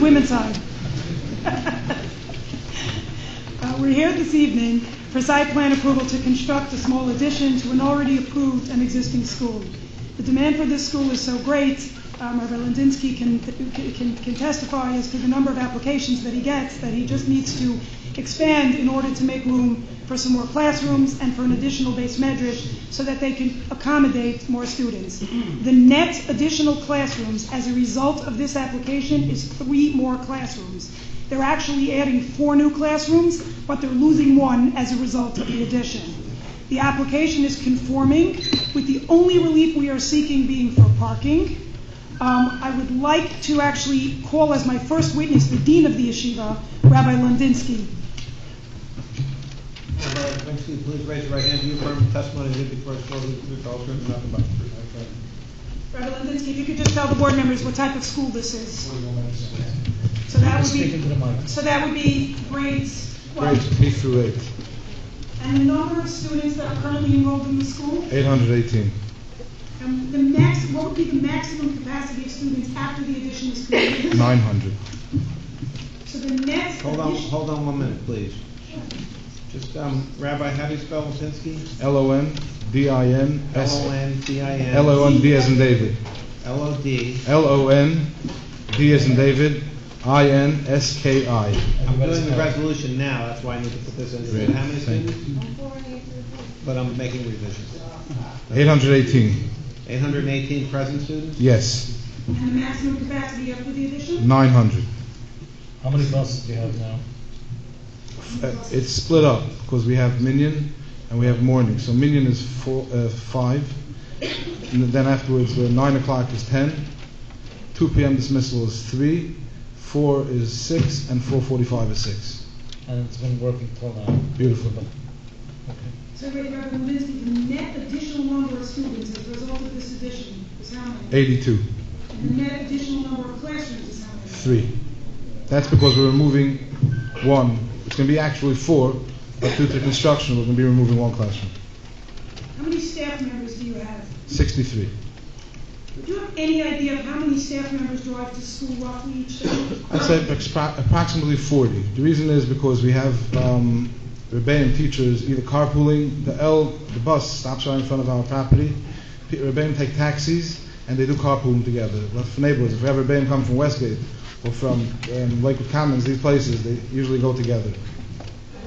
women's side. Uh, We're here this evening for site plan approval to construct a small addition to an already approved and existing school. The demand for this school is so great, um, Reverend Lindinsky can can can testify as to the number of applications that he gets, that he just needs to expand in order to make room for some more classrooms and for an additional base medrash so that they can accommodate more students. The net additional classrooms as a result of this application is three more classrooms. They're actually adding four new classrooms, but they're losing one as a result of the addition. The application is conforming, with the only relief we are seeking being for parking. Um, I would like to actually call as my first witness the dean of the yeshiva, Rabbi Lundinsky. Rabbi Levinsky, please raise your right hand. Do you affirm the testimony you give before this board is the truth, the whole truth, and nothing but the truth? I affirm. Rabbi Lundinsky, if you could just tell the board members what type of school this is. Forty-one minutes. So that would Speak into be, the mic. so that would be grades, what? Grades K through eight, And the number of students that are currently enrolled in the school? eight hundred eighteen. And the max, what would be the maximum capacity of students after the addition is completed? Nine hundred. So the net Hold on, addition. hold on one minute, please. Just, um, Rabbi, how do you spell Levinsky? L O N D I N S. L O N D I N. L O N D as in David. L O D. L O N D as in David. I N S K I. I'm Everybody's doing the got it. resolution now, that's why I need to put this under. Great, How many thank you. students? But I'm making revisions. Eight hundred eighteen. Eight hundred and eighteen present students? Yes. And the maximum capacity after the addition? Nine hundred. How many buses do you have now? Uh, it's split up because we have minion and we have morning. So minion is four, uh, five. And then afterwards, uh, nine o'clock is ten. Two p.m. dismissal is three. Four is six, and four forty-five is six. And it's been working till now. Beautiful. So Rabbi Levinsky, the net additional number of students as a result of this addition is how many? Eighty-two. And the net additional number of classrooms is how many? Three. That's because we're removing one. It's going to be actually four, but due to construction, we're going to be removing one classroom. How many staff members do you have? 63. Do you have any idea of how many staff members drive to school roughly each day? I'd say expra- approximately 40. The reason is because we have um, Rebbeim teachers either carpooling, the L, the bus stops right in front of our property. P- Rebbeim take taxis and they do carpooling together. But for neighborhoods, if we have Rebbeim come from Westgate or from um, Lakewood Commons, these places, they usually go together.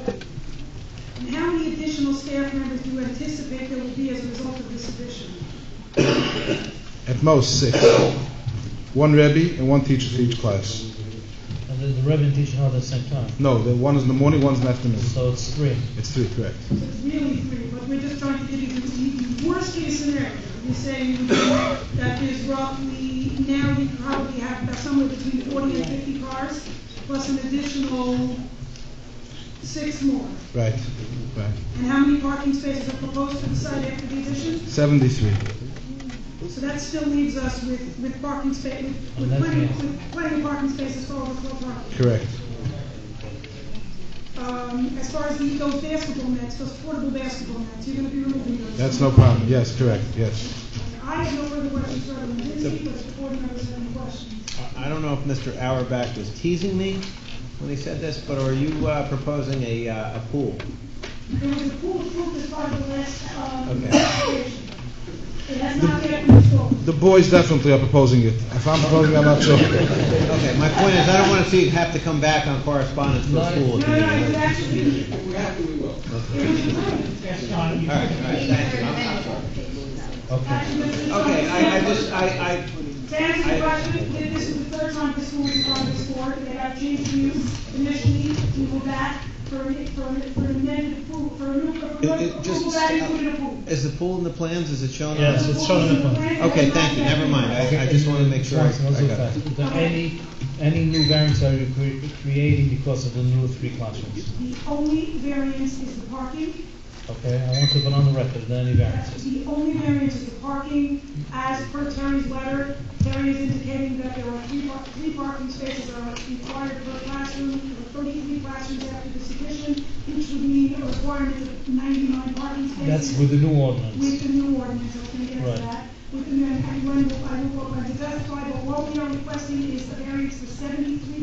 And how many additional staff members do you anticipate there will be as a result of this addition? At most six. One Rebbe and one teacher for each class. And then the Rebbe and teacher held at the same time. No, the one is in the morning, one's in the afternoon. So it's three. It's three, correct. So it's really three, but we're just trying to give you the- the worst case scenario. You're saying that there's roughly, now you probably have about somewhere between forty and fifty cars, plus an additional six more. Right, right. And how many parking spaces are proposed to the site after the addition? 73. So that still leaves us with, with parking spa, with- with plenty, with plenty of parking spaces for overflow parking. Correct. Um, as far as the, those basketball nets, those portable basketball nets, you're gonna be removing those. That's no problem. Yes, correct. Yes. I have no further questions for Reverend Lindsay, but if the board members have any questions. I- I don't know if Mr. Auerbach was teasing me when he said this, but are you uh, proposing a, uh, a pool? There was a pool approved as part of the last, um, Okay. application. It has not yet been installed. The boys definitely are proposing it. If I'm proposing, I'm not sure. Okay, my point is, I don't want to see, have to come back on correspondence for a No, pool. if you no, need no, it it. would actually be, Okay. actually, this is- Okay, I, I just, I, I, To answer the question, th- this is the third time this school is on this board, they have changed views initially, we go back for, a- for, a- for an amended approval, for a new, for a It- it just- approval that included a pool. is the pool in the plans, is it shown on? Yes, the- it's shown in the plan. Okay, thank you, never mind, I, I just want to make sure I Once, once I real got it. fast. Is there any, any new variants are you cre- creating because of the new three classrooms? The only variance is the parking, Okay, I want to put on the record, there are any variances. the only variance is the parking, as per Terry's letter, Terry is indicating that there are three, par- three parking spaces that are required per classroom, there are thirty-three classrooms after this addition, which would mean a requirement of ninety-nine parking spaces. That's with the new With ordinance. the new ordinance, I can get Right. to that. With the, new- I will, I will, I will testify, but what we are requesting is a variance for seventy-three